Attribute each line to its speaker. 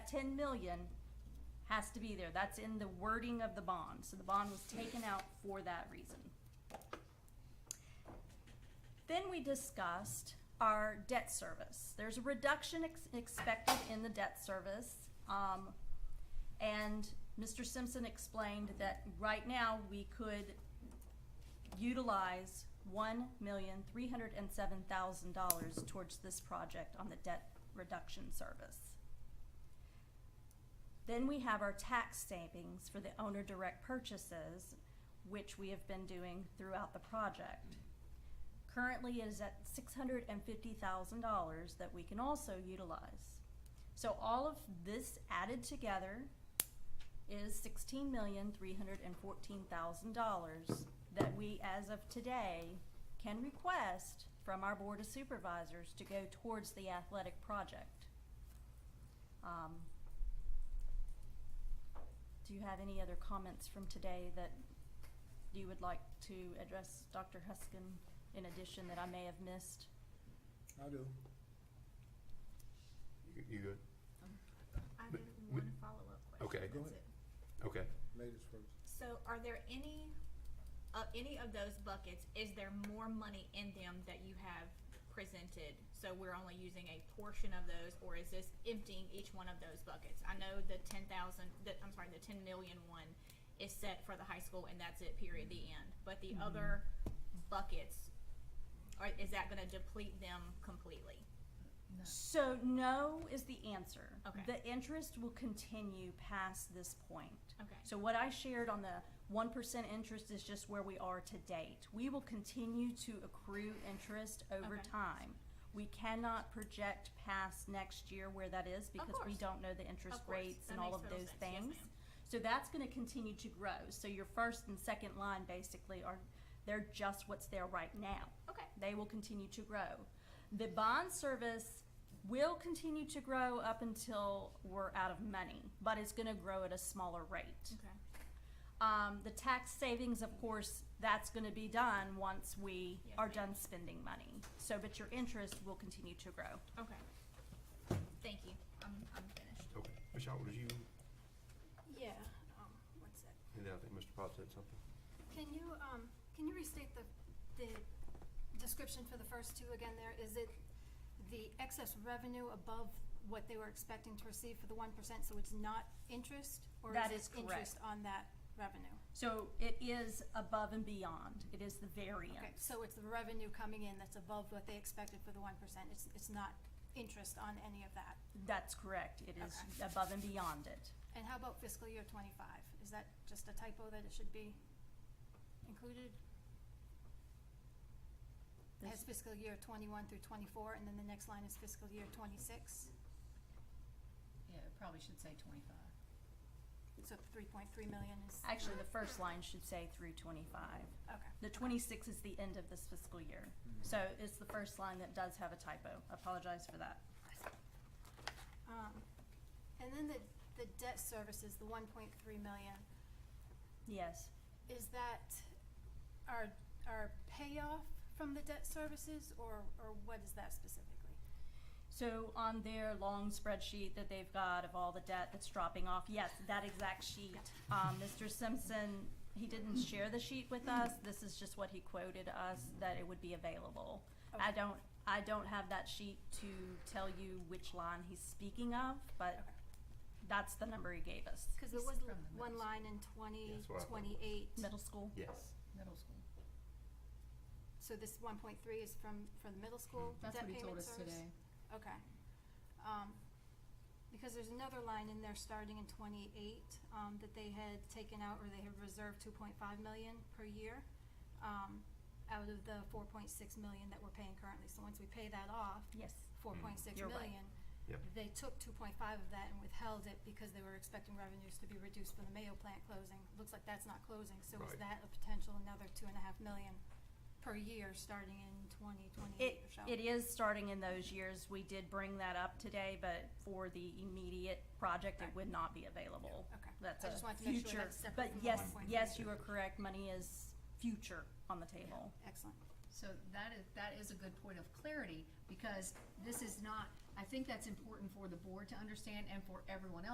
Speaker 1: ten million has to be there. That's in the wording of the bond, so the bond was taken out for that reason. Then we discussed our debt service. There's a reduction ex- expected in the debt service. Um, and Mr. Simpson explained that right now we could utilize one million three hundred and seven thousand dollars towards this project on the debt reduction service. Then we have our tax savings for the owner direct purchases, which we have been doing throughout the project. Currently it is at six hundred and fifty thousand dollars that we can also utilize. So all of this added together is sixteen million three hundred and fourteen thousand dollars that we, as of today, can request from our Board of Supervisors to go towards the athletic project. Um, do you have any other comments from today that you would like to address, Dr. Huskin, in addition that I may have missed?
Speaker 2: I do.
Speaker 3: You- You good?
Speaker 4: I have
Speaker 3: But we-
Speaker 4: one follow-up question.
Speaker 3: Okay.
Speaker 2: Go
Speaker 4: That's
Speaker 2: ahead.
Speaker 4: it.
Speaker 3: Okay.
Speaker 2: Ladies first.
Speaker 4: So are there any, of any of those buckets, is there more money in them that you have presented? So we're only using a portion of those, or is this emptying each one of those buckets? I know the ten thousand, the, I'm sorry, the ten million one is set for the high school and that's it, period, the end. But the other buckets, are, is that gonna deplete them completely?
Speaker 1: So no is the answer.
Speaker 4: Okay.
Speaker 1: The interest will continue past this point.
Speaker 4: Okay.
Speaker 1: So what I shared on the one percent interest is just where we are to date. We will continue to accrue interest over
Speaker 4: Okay.
Speaker 1: time. We cannot project past next year where that is because we
Speaker 4: course.
Speaker 1: don't know the interest
Speaker 4: Of course.
Speaker 1: rates
Speaker 4: That
Speaker 1: and all
Speaker 4: makes
Speaker 1: of
Speaker 4: total
Speaker 1: those
Speaker 4: sense. Yes,
Speaker 1: things.
Speaker 4: ma'am.
Speaker 1: So that's gonna continue to grow. So your first and second line basically are, they're just what's there right now
Speaker 4: Okay,
Speaker 1: they will continue to grow. The bond service will continue to grow up until we're out of money, but it's gonna grow at a smaller rate.
Speaker 4: okay.
Speaker 1: Um, the tax savings, of course, that's gonna be done once we
Speaker 4: Yes,
Speaker 1: are
Speaker 4: ma'am.
Speaker 1: done spending money. So, but your interest will continue to grow.
Speaker 4: Okay. Thank you. I'm, I'm finished.
Speaker 3: Okay. Michelle, was you,
Speaker 5: Yeah, um, one sec.
Speaker 3: and then I think Mr. Potts said something.
Speaker 5: Can you, um, can you restate the, the description for the first two again there? Is it the excess revenue above what they were expecting to receive for the one percent, so it's not interest?
Speaker 1: That
Speaker 5: Or
Speaker 1: is
Speaker 5: is it
Speaker 1: correct.
Speaker 5: interest on that revenue?
Speaker 1: So it is above and beyond. It is the variance.
Speaker 5: Okay, so it's the revenue coming in that's above what they expected for the one percent, it's, it's not interest on any of that?
Speaker 1: That's correct. It is above and beyond it.
Speaker 5: And how about fiscal year twenty-five? Is that just a typo that it should be included? It has fiscal year twenty-one through twenty-four, and then the next line is fiscal year twenty-six,
Speaker 6: Yeah, it probably should say twenty-five.
Speaker 5: so three point three million is,
Speaker 1: Actually, the first line should say through twenty-five.
Speaker 5: okay.
Speaker 1: The twenty-six is the end of this fiscal year, so
Speaker 5: Mm-hmm.
Speaker 1: it's the first line that does have a typo. Apologize for that.
Speaker 5: Um, and then the, the debt service is the one point three million.
Speaker 1: Yes,
Speaker 5: Is that our, our payoff from the debt services, or, or what is that specifically?
Speaker 1: so on their long spreadsheet that they've got of all the debt that's dropping off, yes, that exact sheet. Um, Mr. Simpson, he didn't share the sheet with us, this is just what he quoted us, that it would be available. I
Speaker 5: Okay.
Speaker 1: don't, I don't have that sheet to tell you which line he's speaking of, but
Speaker 5: Okay.
Speaker 1: that's the number he gave us.
Speaker 5: Cause there
Speaker 6: This
Speaker 5: was
Speaker 6: is from the
Speaker 5: one
Speaker 6: notes.
Speaker 5: line in
Speaker 3: Yeah,
Speaker 5: twenty,
Speaker 3: that's what I thought it was.
Speaker 5: twenty-eight.
Speaker 1: Middle school?
Speaker 3: Yes.
Speaker 6: Middle school.
Speaker 5: So this one point three is from, from the middle school
Speaker 6: That's
Speaker 5: debt
Speaker 6: what he
Speaker 5: payment
Speaker 6: told us
Speaker 5: service?
Speaker 6: today.
Speaker 5: Okay. Um, because there's another line in there starting in twenty-eight, um, that they had taken out or they had reserved two point five million per year, um, out of the four point six million that we're paying currently. So once we pay that off,
Speaker 1: Yes.
Speaker 5: four point six
Speaker 1: You're right.
Speaker 5: million,
Speaker 3: Yep.
Speaker 5: they took two point five of that and withheld it because they were expecting revenues to be reduced from the Mayo plant closing. Looks like that's not closing, so is
Speaker 3: Right.
Speaker 5: that a potential another two and a half million per year starting in twenty
Speaker 1: It,
Speaker 5: twenty-eight or so?
Speaker 1: it is starting in those years. We did bring that up today, but for the immediate project, it would not be available.
Speaker 5: Okay.
Speaker 1: That's
Speaker 5: I
Speaker 1: a
Speaker 5: just wanted to make sure
Speaker 1: future,
Speaker 5: that's separate
Speaker 1: but
Speaker 5: from the
Speaker 1: yes,
Speaker 5: 1.3.
Speaker 1: yes, you are correct. Money is future on the table.
Speaker 5: Excellent.
Speaker 6: So that is, that is a good point of clarity, because this is not, I think that's important for the board to understand and for everyone else